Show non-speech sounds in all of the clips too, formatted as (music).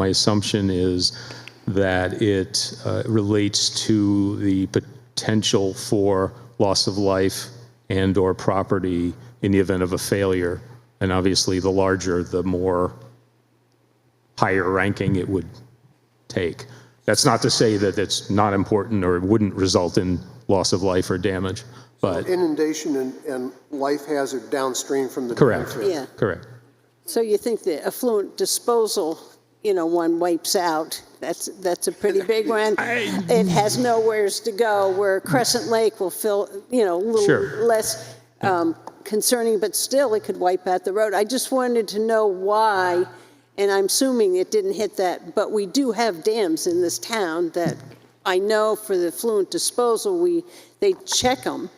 My assumption is that it uh, relates to the potential for loss of life and/or property in the event of a failure. And obviously, the larger, the more higher ranking it would take. That's not to say that it's not important or it wouldn't result in loss of life or damage, but Inundation and, and life hazard downstream from the. Correct. benefit. Yeah. correct. So you think the affluent disposal, you know, one wipes out, that's, that's a (laughs) pretty big one. It has nowheres to go, where Crescent Lake will fill, you know, a Sure. little less um, concerning, but still it could wipe out the road. I just wanted to know why, and I'm assuming it didn't hit that, but we do have dams in this town that I know for the affluent disposal, we, they check them,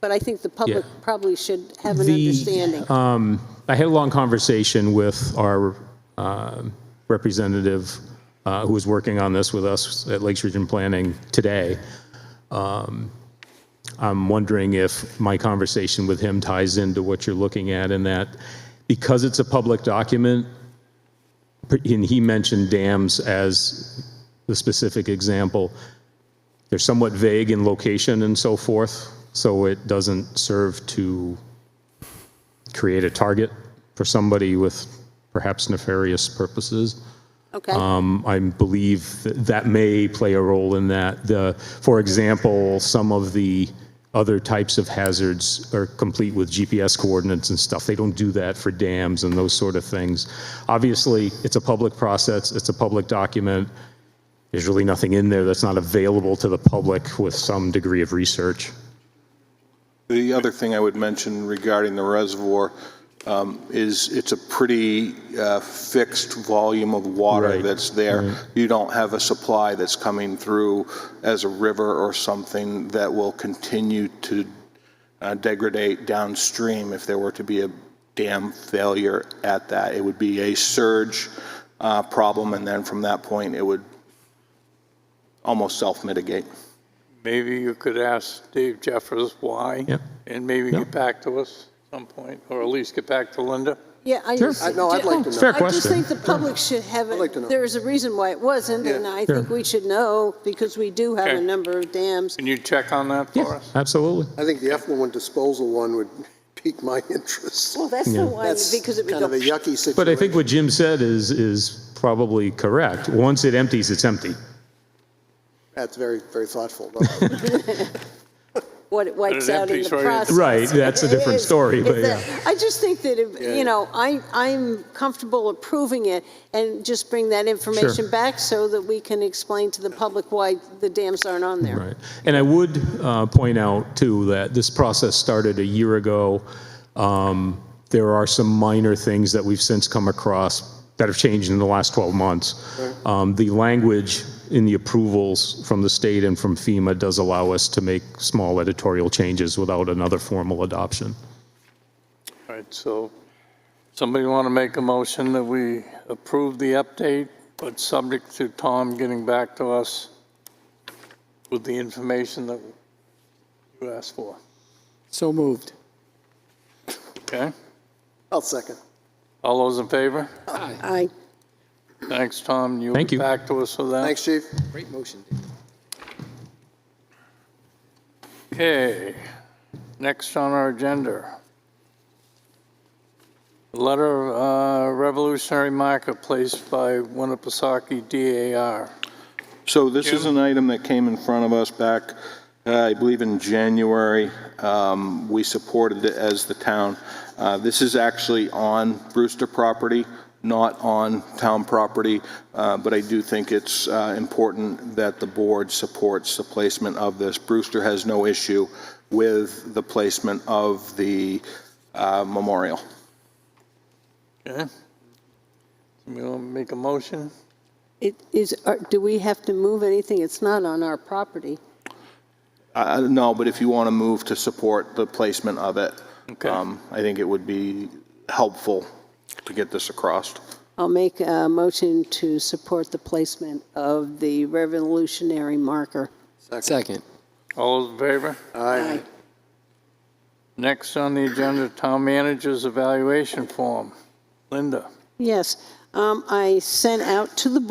but I think the public Yeah. probably should have an The, uh, understanding. I had a long conversation with our um, representative uh, who was working on this with us at Lakes Region Planning today. Um, I'm wondering if my conversation with him ties into what you're looking at in that, because it's a public document, and he mentioned dams as the specific example, they're somewhat vague in location and so forth, so it doesn't serve to create a target for somebody with perhaps nefarious purposes. Okay? Um, I believe that, that may play a role in that. The, for example, some of the other types of hazards are complete with GPS coordinates and stuff. They don't do that for dams and those sort of things. Obviously, it's a public process. It's a public document. There's really nothing in there that's not available to the public with some degree of research. The other thing I would mention regarding the reservoir um, is it's a pretty uh, fixed volume of water Right, that's there. You don't have a supply that's coming through as a river or something that will continue to uh, degrade downstream if there were to be a dam failure at that. It would be a surge uh, problem, and then from that point, it would almost self-mitigate. Maybe you could ask Dave Jeffers why. Yep. And maybe get back to us at some point, or at least get back to Linda. Yeah, I Sure. just. I- no, I'd like to know. Fair I just question. think the public should have, I'd like to know. it. there is a reason why it wasn't, and Yeah. I think we should know, because we do have a Okay. number of dams. Can you check on that for us? Absolutely. I think the effluent disposal one would (laughs) pique my interest. Well, that's the one, That's because it would kind of a go, yucky situation. But I think what Jim said is, is probably correct. Once it empties, it's empty. That's very, very (laughs) thoughtful. though. what it wipes it out in empties the right into- process. Right, that's a different It is. story, but It's yeah. that- I just think that, if you know, I, I'm comfortable approving it, and just bring that information back so that we can explain to the public why the dams aren't on there. Right. And I would uh, point out, too, that this process started a year ago. Um, There are some minor things that we've since come across that have changed in the last 12 months. Um, The language in the approvals from the state and from FEMA does allow us to make small editorial changes without another formal adoption. All right, so somebody want to make a motion that we approve the update, but subject to Tom getting back to us with the information that you asked for, So moved. okay? I'll second. All those in favor? I, Thanks, Tom. You'll Thank get you. back to us with that. Thanks, chief. Great motion. Okay, next on our agenda. Letter uh, Revolutionary Marketplace by Winnipesaukee DAR. So this is an item that came in front of us back, uh, I believe in January. Um, We supported it as the town. Uh, This is actually on Brewster property, not on town property, uh, but I do think it's uh, important that the board supports the placement of this. Brewster has no issue with the placement of the uh, memorial. Okay? You want to make a motion? it is, are- do we have to move anything? It's not on our property. Uh, No, but if you want to move to support the placement of it, Okay. um, I think it would be helpful to get this across. I'll make a motion to support the placement of the revolutionary marker. Second. All those in favor? Aye. Next on the agenda, Town Manager's Evaluation Form. Linda? Yes, um, I sent out to the